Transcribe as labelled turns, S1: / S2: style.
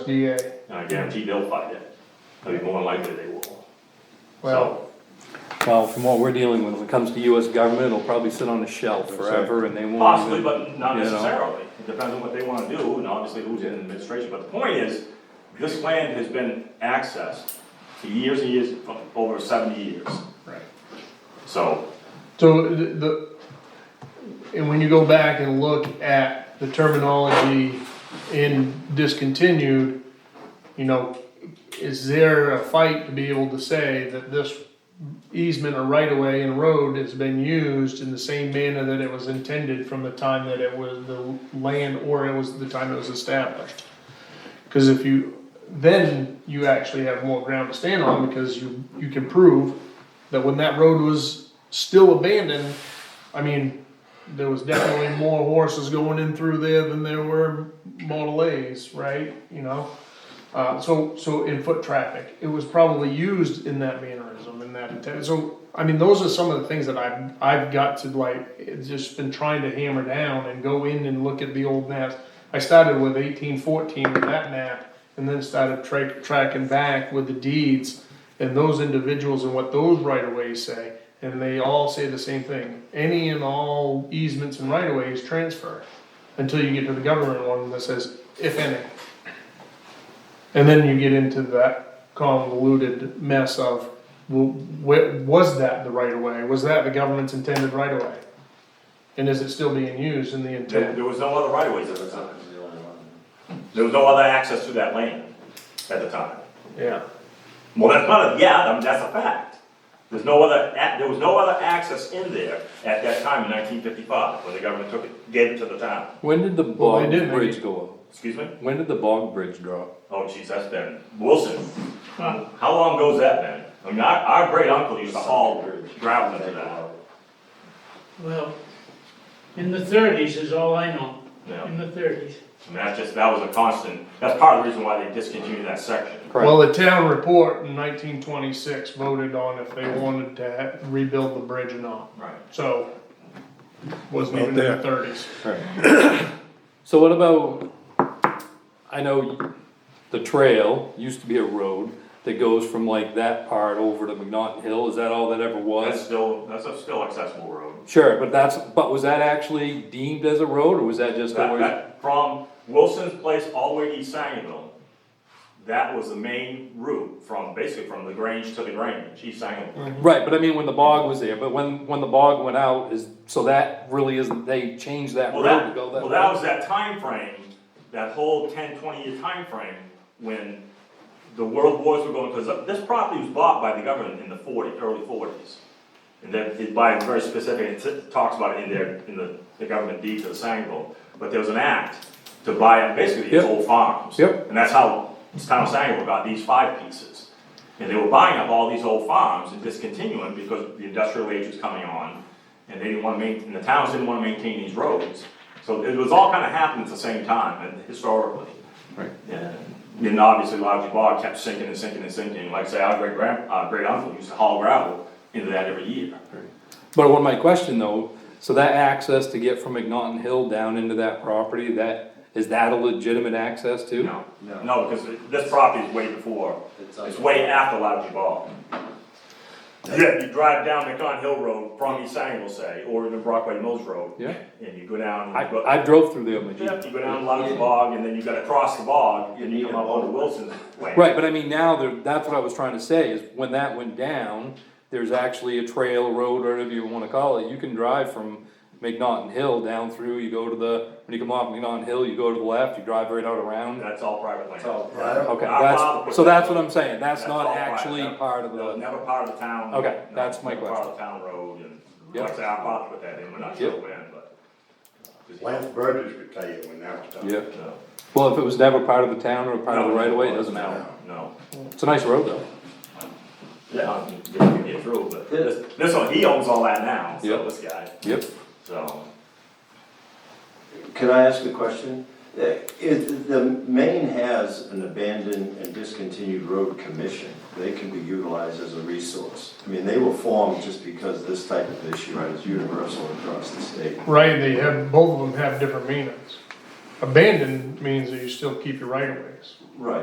S1: USDA.
S2: And I guarantee they'll fight it. I mean, more than likely they will.
S1: Well,
S3: Well, from what we're dealing with, when it comes to US government, it'll probably sit on a shelf forever and they won't.
S2: Possibly,
S3: even-
S2: but not
S3: you know.
S2: necessarily. It depends on what they wanna do and obviously who's in administration. But the point is, this land has been accessed for years and years, for over seventy years.
S1: Right.
S2: So,
S1: so the, the- and when you go back and look at the terminology in discontinued, you know, is there a fight to be able to say that this easement or right of way and road has been used in the same manner that it was intended from the time that it was the land or it was the time it was established? Cause if you, then you actually have more ground to stand on because you, you can prove that when that road was still abandoned, I mean, there was definitely more horses going in through there than there were Model A's, right? You know, uh, so so in foot traffic, it was probably used in that mannerism in that intent. So I mean, those are some of the things that I've I've got to like it's just been trying to hammer down and go in and look at the old maps. I started with eighteen fourteen with that map, and then started tra- tracking back with the deeds and those individuals and what those right of ways say, and they all say the same thing. Any and all easements and right of ways transfer until you get to the government one that says, if any. And then you get into that convoluted mess of, well, wh- was that the right of way? Was that the government's intended right of way? And is it still being used in the
S2: there,
S1: intent?
S2: there was no other right of ways at the time. There was no other access to that land at the time.
S1: Yeah.
S2: Well, that's not a, yeah, I mean, that's a fact. There's no other, a- there was no other access in there at that time in nineteen fifty-five, when the government took it, gave it to the town.
S3: When did the
S1: Well, they
S3: bog
S1: did make
S3: bridge
S1: it-
S3: go up?
S2: Excuse me?
S3: When did the bog bridge drop?
S2: Oh, geez, that's been, Wilson, how long goes that been? I mean, our, our great uncle used to haul gravel into that.
S4: Well, in the thirties is all I know,
S2: Yeah.
S4: in the thirties.
S2: And that's just, that was a constant, that's part of the reason why they discontinued that section.
S1: Well, the town report in nineteen twenty-six voted on if they wanted to ha- rebuild the bridge or not.
S2: Right.
S1: So, wasn't
S3: Out
S1: even in the
S3: there.
S1: thirties.
S3: Right. So what about, I know the trail used to be a road that goes from like that part over to McNaughton Hill, is that all that ever
S2: That's
S3: was?
S2: still, that's a still accessible road.
S3: Sure, but that's, but was that actually deemed as a road or was that just?
S2: That,
S3: always-
S2: that, from Wilson's place all the way to East Sangerville, that was the main route from, basically from the Grange to the Grange, East Sangerville.
S3: Right, but I mean, when the bog was there, but when, when the bog went out, is, so that really isn't, they changed that
S2: Well,
S3: road to
S2: that,
S3: go that way?
S2: well, that was that time frame, that whole 10, 20 year time frame when the world wars were going, because this property was bought by the government in the forty, early forties. And then it by very specific, it t- talks about it in their, in the, the government deed to the Sangerville, but there was an act to buy up basically these
S3: Yep.
S2: old farms.
S3: Yep.
S2: And that's how this town of Sangerville got these five pieces. And they were buying up all these old farms and discontinuing because the industrial age was coming on. And they didn't wanna main, and the towns didn't wanna maintain these roads. So it was all kinda happening at the same time and historically. And then obviously Logic Bog kept sinking and sinking and sinking, like I say, our great grand, our great uncle used to haul gravel into that every year.
S3: But what my question though, so that access to get from McNaughton Hill down into that property, that, is that a legitimate access too?
S2: No, no, because this property is way before,
S5: It's uh,
S2: it's way after Logic Bog. Yeah, you drive down McCon Hill Road from East Sangerville, say, or the Brockway Mills Road.
S3: Yeah.
S2: And you go down,
S3: I,
S2: and you go,
S3: I drove through there, my
S2: yeah,
S3: Jeep.
S2: you go down Logic Bog, and then you gotta cross the bog, and you
S5: need
S2: come
S5: a
S2: up onto
S5: boat.
S2: Wilson's land.
S3: Right, but I mean, now, there- that's what I was trying to say, is when that went down, there's actually a trail, road, or whatever you wanna call it, you can drive from McNaughton Hill down through, you go to the, when you come off McNaughton Hill, you go to the left, you drive right out around.
S2: That's all private land.
S5: all private.
S3: Okay,
S2: Our father put
S3: that's, so
S2: that-
S3: that's what I'm saying, that's
S2: all
S3: not
S2: private.
S3: actually
S2: That-
S3: part of
S2: that was
S3: the,
S2: Never part of the town.
S3: Okay,
S2: No,
S3: that's my
S2: never Part of the town road and, like I
S3: Yep.
S2: said, I thought with that in, we're not sure
S3: Yep.
S2: when, but.
S5: Lance Burgess could tell you when that was done.
S3: yeah.
S2: No,
S3: Well, if it was never part of the town or part of the
S2: No,
S3: right of way, it
S2: was.
S3: doesn't matter.
S2: No,
S3: It's a nice road though.
S2: yeah, I mean, you can get through, but this, this one, he owns all that now, so
S3: Yep.
S2: this guy,
S3: Yep.
S2: so.
S5: Could I ask a question? Uh, Is, the Maine has an abandoned and discontinued road commission. They can be utilized as a resource. I mean, they were formed just because this type of issue is universal across the state.
S1: Right, they have, both of them have different meanings. abandoned means that you still keep your right of ways.
S5: Right.